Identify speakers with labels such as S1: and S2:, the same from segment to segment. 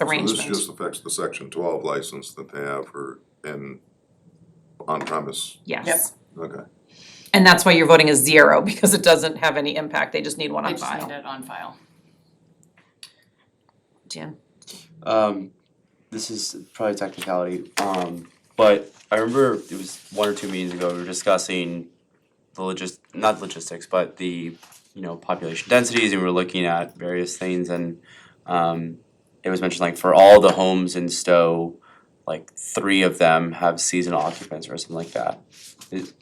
S1: arrangements.
S2: So this just affects the section twelve license that they have for, in, on premise,
S1: Yes.
S2: okay.
S1: And that's why your voting is zero, because it doesn't have any impact, they just need one
S3: I
S1: on
S3: just need
S1: file.
S3: it on file.
S1: Jan,
S4: Um, this is probably technicality, um, but I remember it was one or two meetings ago, we were discussing the logis, not logistics, but the, you know, population densities, and we were looking at various things, and, um, it was mentioned like for all the homes in Stowe, like three of them have seasonal occupants or something like that. Is-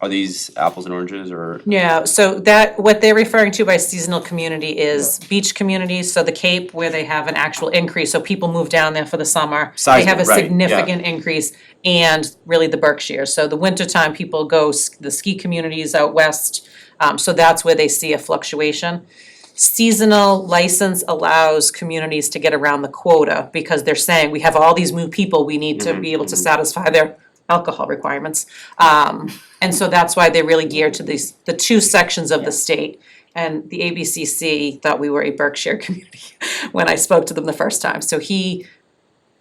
S4: are these apples and oranges, or,
S1: Yeah, so that, what they're referring to by seasonal community is beach communities, so the Cape where they have an actual increase, so people move down there for the summer. They have a
S4: Seismic, right, yeah.
S1: significant increase and really the Berkshires. So the wintertime, people go, s- the ski communities out west, um, so that's where they see a fluctuation. Seasonal license allows communities to get around the quota because they're saying, we have all these new people, we need to be able to satisfy their alcohol requirements. Um, and so that's why they're really geared to these, the two sections of the state. And the ABCC thought we were a Berkshire community when I spoke to them the first time. So he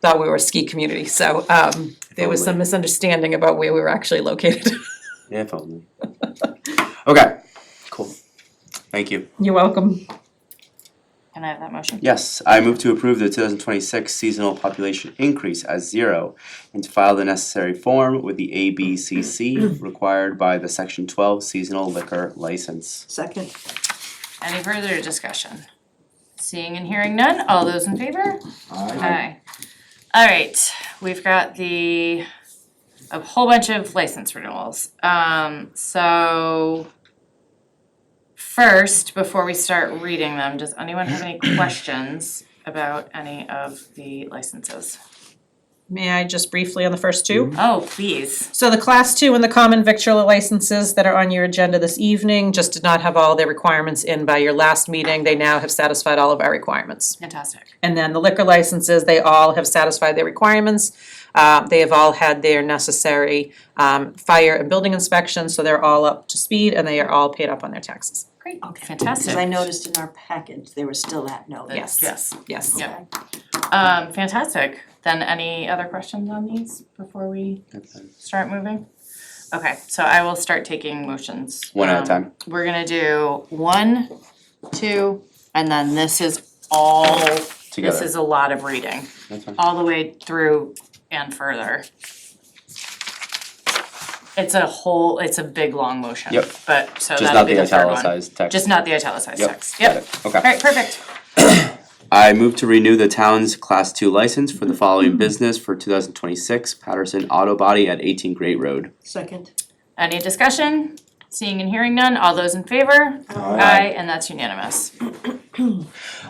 S1: thought we were a ski community, so um there was some
S4: Totally.
S1: misunderstanding about where we were actually located.
S4: yeah, if only. Okay, cool, thank you.
S1: You're welcome.
S3: Can I have that motion?
S4: Yes, I move to approve the two thousand twenty-six seasonal population increase as zero and to file the necessary form with the ABCC required by the section twelve seasonal liquor license.
S5: Second,
S3: Any further discussion? Seeing and hearing none, all those in favor? Aye. Alright, we've got the, a whole bunch of license renewals, um, so. First, before we start reading them, does anyone have any questions about any of the licenses?
S1: May I just briefly on the first two?
S3: Oh, please,
S1: So the class two and the common victualler licenses that are on your agenda this evening just did not have all their requirements in by your last meeting. They now have satisfied all of our requirements.
S3: fantastic,
S1: And then the liquor licenses, they all have satisfied their requirements. Uh, they have all had their necessary um fire and building inspections, so they're all up to speed and they are all paid up on their taxes.
S3: great,
S5: Okay.
S3: fantastic.
S5: because I noticed in our package, there was still that note.
S3: That's-
S1: Yes.
S3: Yes,
S1: Yes.
S3: Yeah. um, fantastic, then any other questions on these before we start moving? Okay, so I will start taking motions.
S4: One at a
S3: Um,
S4: time.
S3: We're gonna do one, two, and then this is all, this
S4: Together,
S3: is a lot of reading,
S4: that's fine.
S3: all the way through and further. It's a whole, it's a big, long motion.
S4: Yep.
S3: But, so
S4: Just
S3: that'll
S4: not
S3: be
S4: the
S3: the third one.
S4: italicized text.
S3: Just not the italicized text,
S4: Got
S3: yep,
S4: it, okay.
S3: alright, perfect,
S4: I move to renew the town's class two license for the
S3: Mm-hmm.
S4: following business for two thousand twenty-six Patterson Auto Body at eighteen Great Road.
S5: Second,
S3: any discussion? Seeing and hearing none, all those in favor? Aye, and that's unanimous.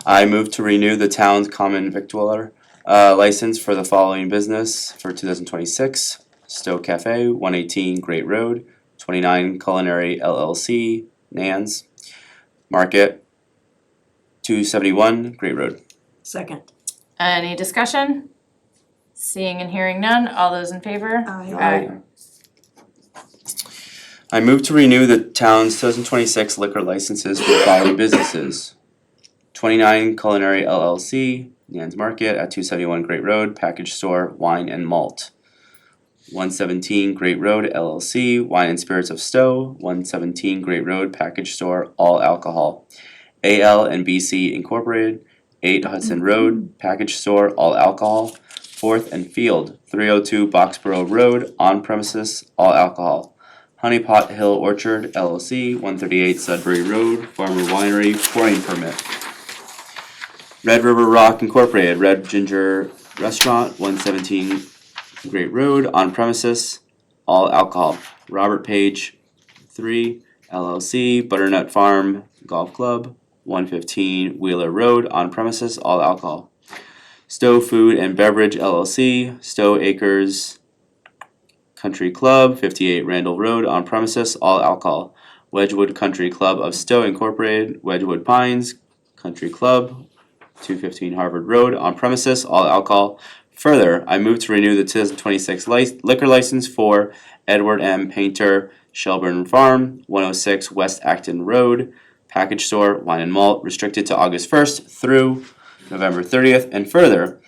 S4: I move to renew the town's common victualler uh, license for the following business for 2026 Stowe Cafe, 118 Great Road, 29 Culinary LLC, Nans, Market, 271 Great Road.
S5: second.
S3: Any discussion? Seeing and hearing none, all those in favor?
S5: Aye.
S3: Aye.
S4: I move to renew the town's 2026 liquor licenses for the following businesses. 29 Culinary LLC, Nan's Market at 271 Great Road, Package Store, Wine and Malt. 117 Great Road LLC, Wine and Spirits of Stowe, 117 Great Road Package Store, All Alcohol. AL and BC Incorporated, 8 Hudson Road, Package Store, All Alcohol. Fourth and Field, 302 Boxborough Road, On Premises, All Alcohol. Honey Pot Hill Orchard LLC, one thirty-eight Sudbury Road, Farmer Winery, pouring permit. Red River Rock Incorporated, Red Ginger Restaurant, one seventeen Great Road, on premises, all alcohol. Robert Page, three LLC, Butternut Farm Golf Club, one fifteen Wheeler Road, on premises, all alcohol. Stowe Food and Beverage LLC, Stowe Acres, Country Club, 58 Randall Road, on premises, all alcohol. Wedgewood Country Club of Stowe Incorporated, Wedgewood Pines Country Club, 215 Harvard Road, on premises, all alcohol. Further, I move to renew the 2026 lic- liquor license for Edward M. Painter, Shelburne Farm, 106 West Acton Road, Package Store, Wine and Malt, restricted to August 1st through November thirtieth, and further,